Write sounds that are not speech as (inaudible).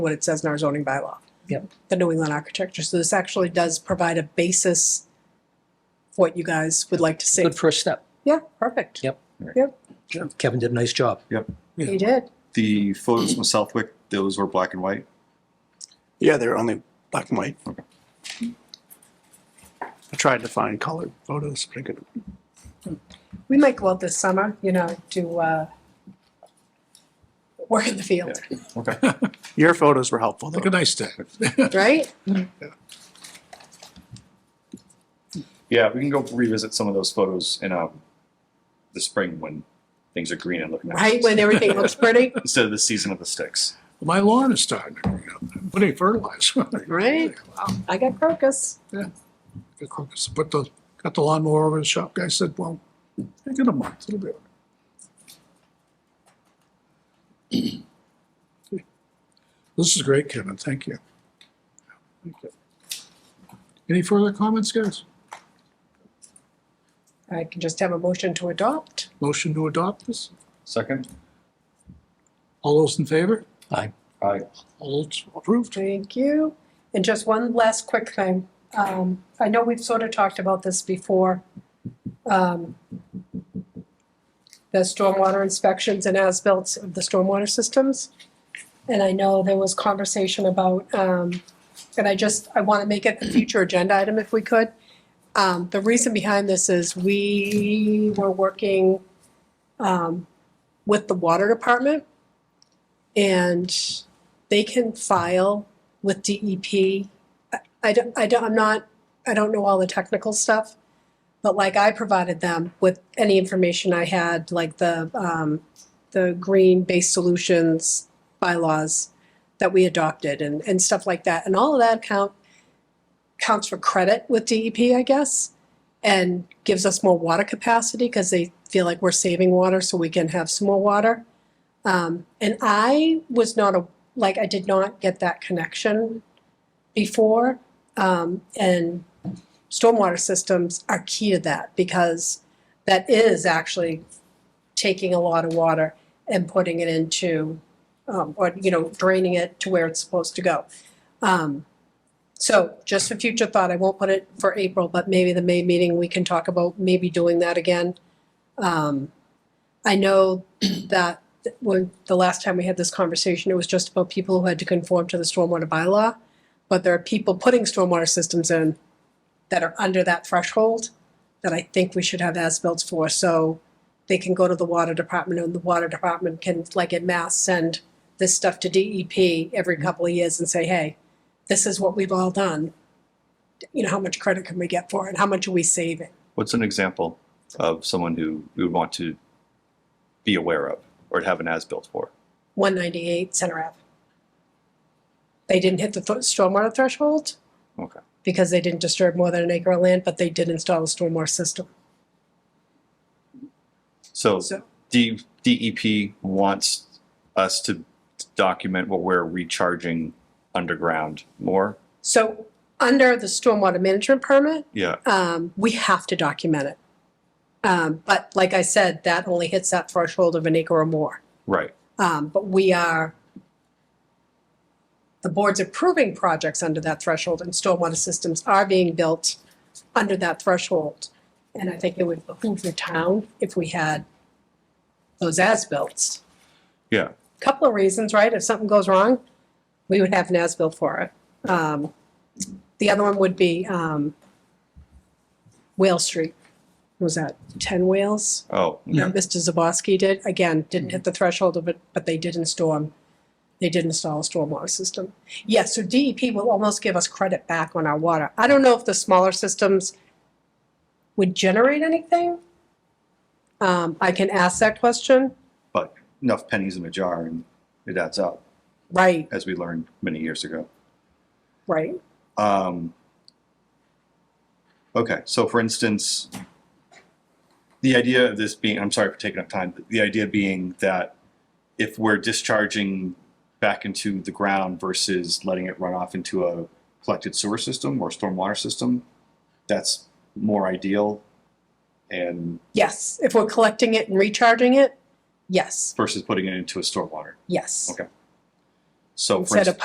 what it says in our zoning bylaw. Yep. The New England architecture. So this actually does provide a basis for what you guys would like to see. Good first step. Yeah, perfect. Yep. Kevin did a nice job. You did. The photos from Southwick, those were black and white. Yeah, they're only black and white. Okay. I tried to find color photos, but I couldn't. We might go out this summer, you know, to uh, work in the field, Okay. (laughs) Your photos were helpful, Look a though. nice day. (laughs) right? Yeah, we can go revisit some of those photos in um, the spring when things are green and looking nice. Right, when everything looks pretty, Instead of the season of the sticks. My lawn is starting to green up. I'm putting fertilizer. on it. right? I got crocus. (laughs) Put the, got the lawnmower over the shop. Guy said, well, take it a month, it'll be. all right." (clears throat) This is great, Kevin. Thank you. Thank you. Any further comments, guys? I can just have a motion to adopt. Motion to adopt this? Second? All those in favor? Aye. Aye. All those approved? Thank you. And just one last quick thing. Um, I know we've sort of talked about this before. Um, The stormwater inspections and as-built of the stormwater systems. And I know there was conversation about, um, and I just, I want to make it a future agenda item if we could. Um, the reason behind this is we were working, um, with the water department. And they can file with DEP. I- I don't, I don't, I'm not, I don't know all the technical stuff, but like I provided them with any information I had, like the, um, the green based solutions bylaws that we adopted and, and stuff like that. And all of that count, counts for credit with DEP, I guess, and gives us more water capacity because they feel like we're saving water so we can have some more water. Um, and I was not a, like I did not get that connection before. Um, and stormwater systems are key to that because that is actually taking a lot of water and putting it into, um, or, you know, draining it to where it's supposed to go. Um, so just for future thought, I won't put it for April, but maybe the May meeting, we can talk about maybe doing that again. Um, I know (clears throat) that when the last time we had this conversation, it was just about people who had to conform to the stormwater bylaw. But there are people putting stormwater systems in that are under that threshold that I think we should have as-built for, so they can go to the water department and the water department can, like in Mass, send this stuff to DEP every couple of years and say, hey, this is what we've all done. You know, how much credit can we get for it? How much are we saving? What's an example of someone who we would want to be aware of or have an as built for? 198 Center Ave. They didn't hit the th- stormwater threshold. Okay. Because they didn't disturb more than an acre of land, but they did install a stormwater system. So, So- D, DEP wants us to document what we're recharging underground more. So under the stormwater management permit, Yeah. um, we have to document it. Um, but like I said, that only hits that threshold of an acre or more. Right. Um, but we are, the board's approving projects under that threshold and stormwater systems are being built under that threshold. And I think it would behoove the town if we had those as-bills. Yeah. Couple of reasons, right? If something goes wrong, we would have an as-bill for it. Um, the other one would be, um, Whale Street. What Was that ten whales? Oh. that Mr. Zaboski did, again, didn't hit the threshold of it, but they did in storm, they did install a stormwater system. Yes, so DEP will almost give us credit back on our water. I don't know if the smaller systems would generate anything. Um, I can ask that question, But enough pennies in a jar and it adds up, right, as we learned many years ago. right, Um, okay, so for instance, the idea of this being, I'm sorry for taking up time, but the idea being that if we're discharging back into the ground versus letting it run off into a collected sewer system or stormwater system, that's more ideal and yes, if we're collecting it and recharging it, yes, versus putting it into a stormwater. yes. Okay. So for Instead of instance,